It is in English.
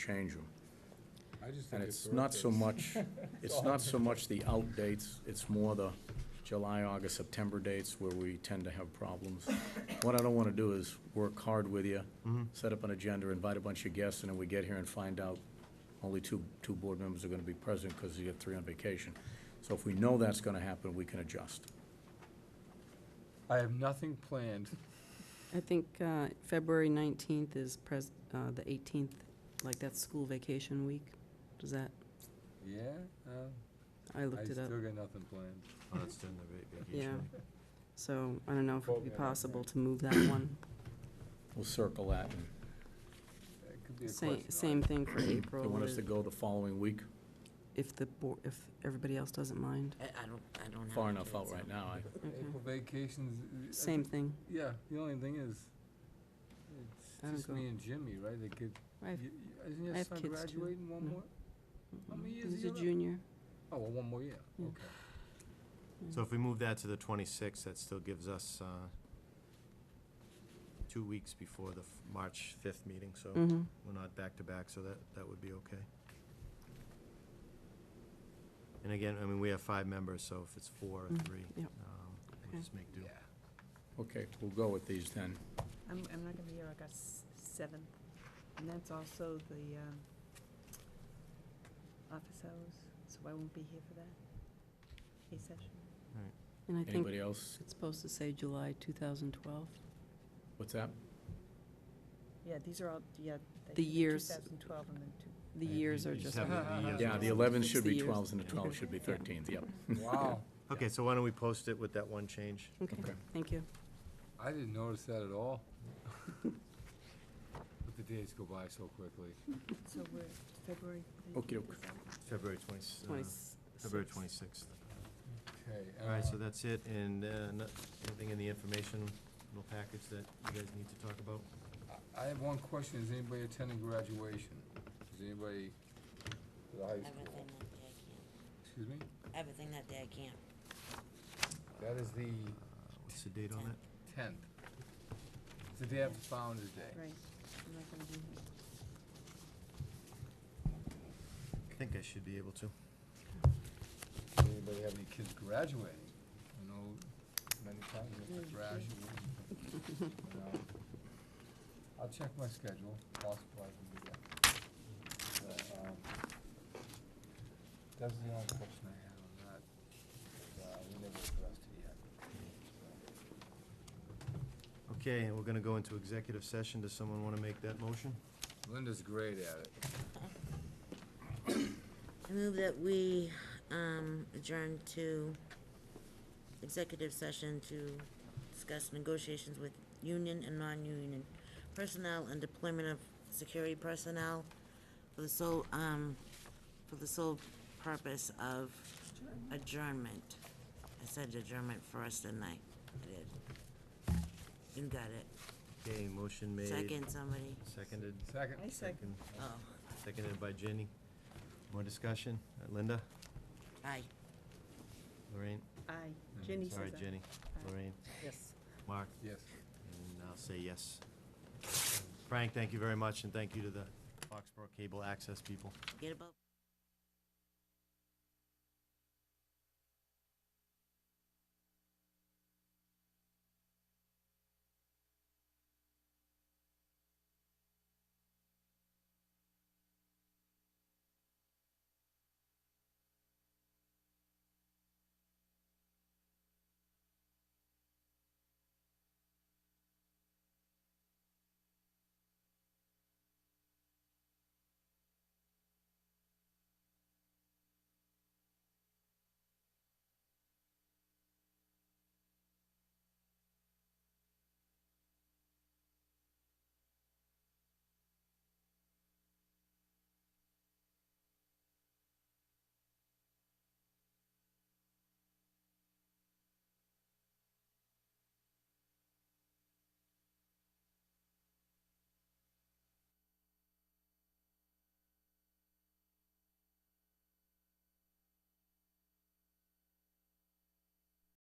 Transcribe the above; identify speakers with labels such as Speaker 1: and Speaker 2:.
Speaker 1: change them.
Speaker 2: I just
Speaker 1: And
Speaker 2: think
Speaker 1: it's not so much, it's not so much the out dates, it's more the July, August, September dates where we tend to have problems. What I don't want to do is work hard with you, set up an agenda, invite a bunch of guests, and then we get here and find out only two, two board members are going to be present because you have three on vacation. So if we know that's going to happen, we can adjust.
Speaker 2: I have nothing planned.
Speaker 3: I think uh, February 19th is pres, uh, the 18th, like that's school vacation week. Does that,
Speaker 2: Yeah? Uh,
Speaker 3: I
Speaker 2: I
Speaker 3: looked it
Speaker 2: still
Speaker 3: up.
Speaker 2: got nothing planned.
Speaker 4: Oh, that's during the va-
Speaker 3: Yeah.
Speaker 4: vacation week.
Speaker 3: So I don't know if it would be
Speaker 2: Program,
Speaker 3: possible
Speaker 2: right.
Speaker 3: to move that one.
Speaker 1: We'll circle that. and
Speaker 2: That could be a
Speaker 3: Same,
Speaker 2: question.
Speaker 3: same thing for
Speaker 1: They
Speaker 3: April,
Speaker 1: want us
Speaker 3: with-
Speaker 1: to go the following week,
Speaker 3: if the, bo- if everybody else doesn't mind.
Speaker 4: I, I don't, I don't have.
Speaker 1: far
Speaker 4: a
Speaker 1: enough
Speaker 4: date,
Speaker 1: out
Speaker 4: so-
Speaker 1: right now. I-
Speaker 3: Okay.
Speaker 2: April vacations. uh, I
Speaker 3: Same
Speaker 2: ju-
Speaker 3: thing.
Speaker 2: Yeah, the only thing is,
Speaker 3: I don't
Speaker 2: it's just
Speaker 3: go.
Speaker 2: me and Jimmy, right? They could,
Speaker 3: I
Speaker 2: y-
Speaker 3: have-
Speaker 2: y- isn't your
Speaker 3: I have
Speaker 2: son
Speaker 3: kids too. Mm.
Speaker 2: graduating one
Speaker 3: No.
Speaker 2: more? How many years
Speaker 3: He's
Speaker 2: he
Speaker 3: a
Speaker 2: on up?
Speaker 3: junior.
Speaker 2: Oh, well, one more year,
Speaker 3: Yeah.
Speaker 2: okay.
Speaker 4: So if we move that to the twenty-sixth, that still gives us, uh, two weeks before the f- March fifth meeting, so
Speaker 3: Mhm.
Speaker 4: we're not back-to-back, so that, that would be okay. And again, I mean, we have five members, so if it's four or
Speaker 3: Mm,
Speaker 4: three, um,
Speaker 3: yep. Okay.
Speaker 4: we'll just make do.
Speaker 2: Yeah.
Speaker 1: Okay, we'll go with these then.
Speaker 5: I'm, I'm not gonna be here like a seventh, and that's also the, um, office hours, so I won't be here for that. A session.
Speaker 3: And I think
Speaker 1: Anybody else?
Speaker 3: it's supposed to say July 2012.
Speaker 1: What's that?
Speaker 5: Yeah, these are all, yeah. they
Speaker 3: The
Speaker 5: should be
Speaker 3: years.
Speaker 5: 2012 and then two.
Speaker 3: The
Speaker 4: You-
Speaker 3: years
Speaker 4: you
Speaker 3: are
Speaker 4: just
Speaker 3: just,
Speaker 4: have the years
Speaker 1: Yeah,
Speaker 4: on
Speaker 1: the
Speaker 4: it.
Speaker 1: 11 should
Speaker 3: Sixty
Speaker 1: be
Speaker 3: years.
Speaker 1: 12s and the 12 should be 13s, yep.
Speaker 2: Wow,
Speaker 4: Okay, so why don't we post it with that one change?
Speaker 3: okay,
Speaker 1: Okay.
Speaker 3: thank you.
Speaker 2: I didn't notice that at all. But the days go by so quickly.
Speaker 5: So we're February.
Speaker 1: Okey
Speaker 5: 19th,
Speaker 1: doke.
Speaker 5: is that-
Speaker 4: February twenty, uh,
Speaker 3: 26.
Speaker 4: February twenty-sixth.
Speaker 2: Okay.
Speaker 4: All right, so
Speaker 2: uh,
Speaker 4: that's it, and, uh, no- anything in the information, little package that you guys need to talk about?
Speaker 2: I- I have one question. Is anybody attending graduation? Is anybody to the high school?
Speaker 6: Everything that day I can't.
Speaker 2: Excuse me?
Speaker 6: Everything that day I can't.
Speaker 2: That is the
Speaker 4: Uh, What's the date on that?
Speaker 2: tenth. It's the day after Founder's Day.
Speaker 5: Right, I'm not gonna be here.
Speaker 4: I think I should be able to.
Speaker 2: Does anybody have any kids graduating? I know many times you have to graduate. Um, I'll check my schedule, possibly I can do that. But, um, That's the only question I had on that. Uh, we never addressed it yet. So,
Speaker 4: Okay, and we're gonna go into executive session. Does someone wanna make that motion?
Speaker 2: Linda's great at it.
Speaker 6: I move that we, um, adjourn to executive session to discuss negotiations with union and non-union personnel and deployment of security personnel for the sole, um, for the sole purpose of adjournment. I said adjournment first, didn't I? I did. You got it.
Speaker 4: Okay, motion made.
Speaker 6: Second, somebody.
Speaker 4: Seconded.
Speaker 2: Second.
Speaker 5: I second.
Speaker 6: Oh,
Speaker 4: Seconded by Jenny. More discussion? Uh, Linda?
Speaker 6: aye.
Speaker 4: Lorraine?
Speaker 5: Aye, Jenny says aye.
Speaker 4: Sorry, Jenny. Lorraine?
Speaker 6: Yes.
Speaker 4: Mark?
Speaker 2: Yes.
Speaker 4: And I'll say yes. Frank, thank you very much, and thank you to the Foxborough Cable Access people.
Speaker 6: Get about.